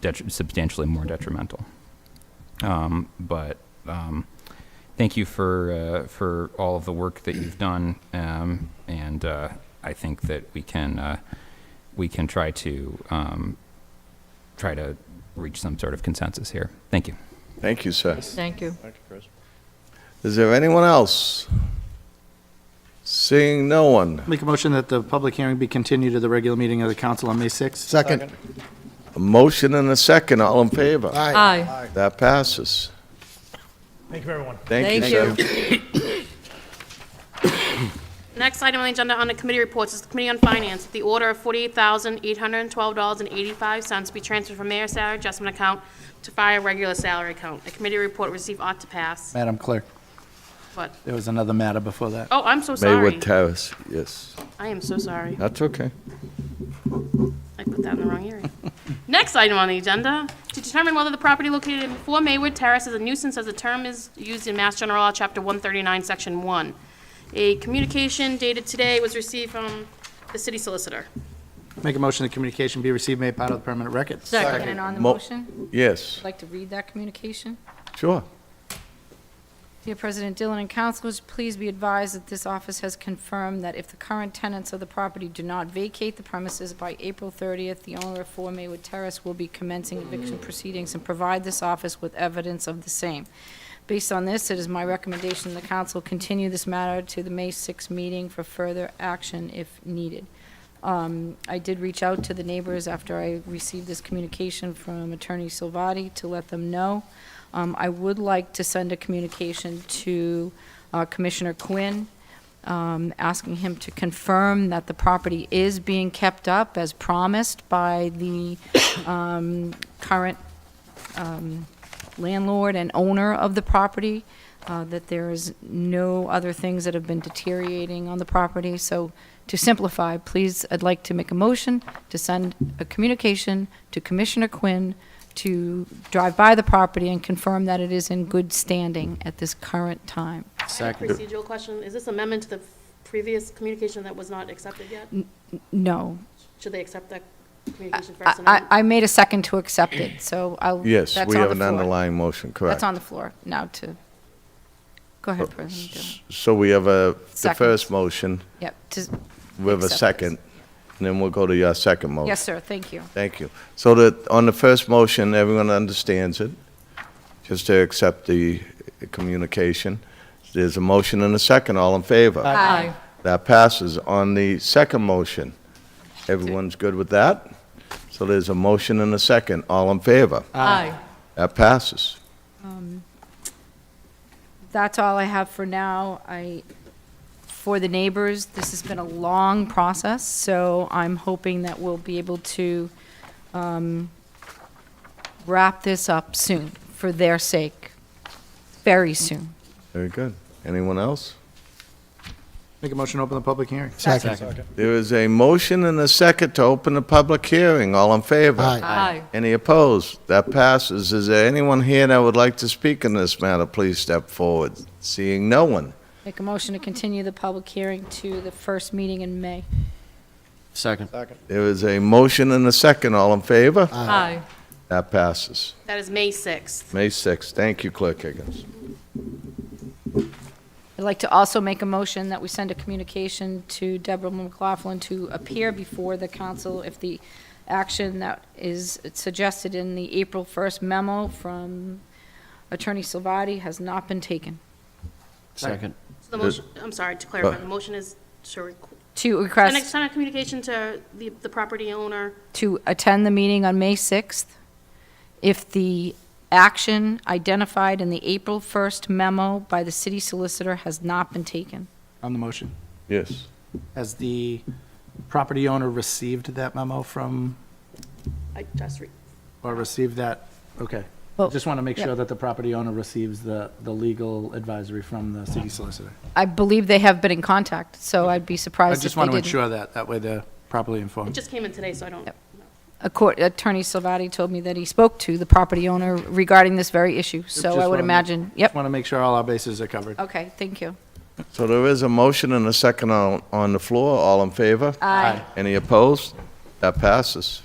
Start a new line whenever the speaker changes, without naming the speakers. detri- substantially more detrimental. Um, but um, thank you for uh, for all of the work that you've done, um, and uh, I think that we can uh, we can try to um, try to reach some sort of consensus here. Thank you.
Thank you, sir.
Thank you.
Is there anyone else? Seeing no one.
Make a motion that the public hearing be continued to the regular meeting of the council on May 6th.
Second.
A motion and a second, all in favor?
Aye.
Aye.
That passes.
Thank you, everyone.
Thank you,
Thank
sir.
you.
Next item on the agenda under committee reports is the Committee on Finance. The order of $48,812.85 be transferred from mayor's salary adjustment account to fire regular salary account. A committee report received ought to pass.
Madam Clerk,
But,
there was another matter before that.
oh, I'm so sorry.
Maywood Terrace, yes.
I am so sorry.
That's okay.
I put that in the wrong area. Next item on the agenda, to determine whether the property located in 4 Maywood Terrace is a nuisance as the term is used in Mass General Law, Chapter 139, Section 1. A communication dated today was received from the city solicitor.
Make a motion that communication be received, made part of the permanent record.
Second. And on the
Mo-
motion,
Yes,
I'd like to read that communication.
sure.
Dear President Dillon and councilors, please be advised that this office has confirmed that if the current tenants of the property do not vacate the premises by April 30th, the owner of 4 Maywood Terrace will be commencing eviction proceedings and provide this office with evidence of the same. Based on this, it is my recommendation the council continue this matter to the May 6 meeting for further action if needed. Um, I did reach out to the neighbors after I received this communication from Attorney Silvati to let them know. Um, I would like to send a communication to uh, Commissioner Quinn, um, asking him to confirm that the property is being kept up as promised by the um, current um, landlord and owner of the property, uh, that there is no other things that have been deteriorating on the property. So to simplify, please, I'd like to make a motion to send a communication to Commissioner Quinn to drive by the property and confirm that it is in good standing at this current time.
Second.
Procedural question, is this amendment to the previous communication that was not accepted yet?
No.
Should they accept that communication first? and
I,
then-
I I made a second to accept it, so I'll.
Yes,
that's
we
on
have
the
an
floor.
underlying motion, correct.
That's on the floor now to,
Oh,
go ahead, President Dillon.
So we have a, the
Second.
first motion,
Yep, to,
we have a
Accept this.
second, and then we'll go to your second motion.
yes, sir, thank you.
Thank you. So that, on the first motion, everyone understands it, just to accept the communication. There's a motion and a second, all in favor?
Aye.
That passes. On the second motion, everyone's good with that? So there's a motion and a second, all in favor?
Aye.
That passes.
Um, That's all I have for now. I, for the neighbors, this has been a long process, so I'm hoping that we'll be able to um, wrap this up soon, for their sake, very soon.
Very good. Anyone else?
Make a motion to open the public hearing.
Second.
There is a motion and a second to open the public hearing, all in favor?
Aye.
Aye.
Any opposed? That passes. Is there anyone here that would like to speak in this matter? Please step forward. Seeing no one.
Make a motion to continue the public hearing to the first meeting in May.
Second.
There is a motion and a second. All in favor?
Aye.
That passes.
That is May 6th.
May 6th. Thank you, Clerk Higgins.
I'd like to also make a motion that we send a communication to Deborah McLaughlin to appear before the council if the action that is suggested in the April 1st memo from Attorney Salvati has not been taken.
Second.
So the motion, I'm sorry, to clarify, the motion is to requ-
To
the next
request,
time of communication to the, the property owner.
to attend the meeting on May 6th. If the action identified in the April 1st memo by the city solicitor has not been taken.
On the motion.
Yes.
Has the property owner received that memo from,
I just, re-
or received that? Okay.
Well,
Just want to make
yeah.
sure that the property owner receives the, the legal advisory from the city solicitor.
I believe they have been in contact, so I'd be
I
surprised if
just
they
want to
didn't.
ensure that, that way they're properly
it
informed.
just came in today, so I don't,
Yep. A court- Attorney Salvati told me that he spoke to the property owner regarding this very issue, so
Just
I would
wanna make-
imagine,
Just
yep,
want to make sure all our bases are covered.
okay, thank you.
So there is a motion
Uh.
and a second on, on the floor. All in favor?
Aye.
Any opposed? That passes.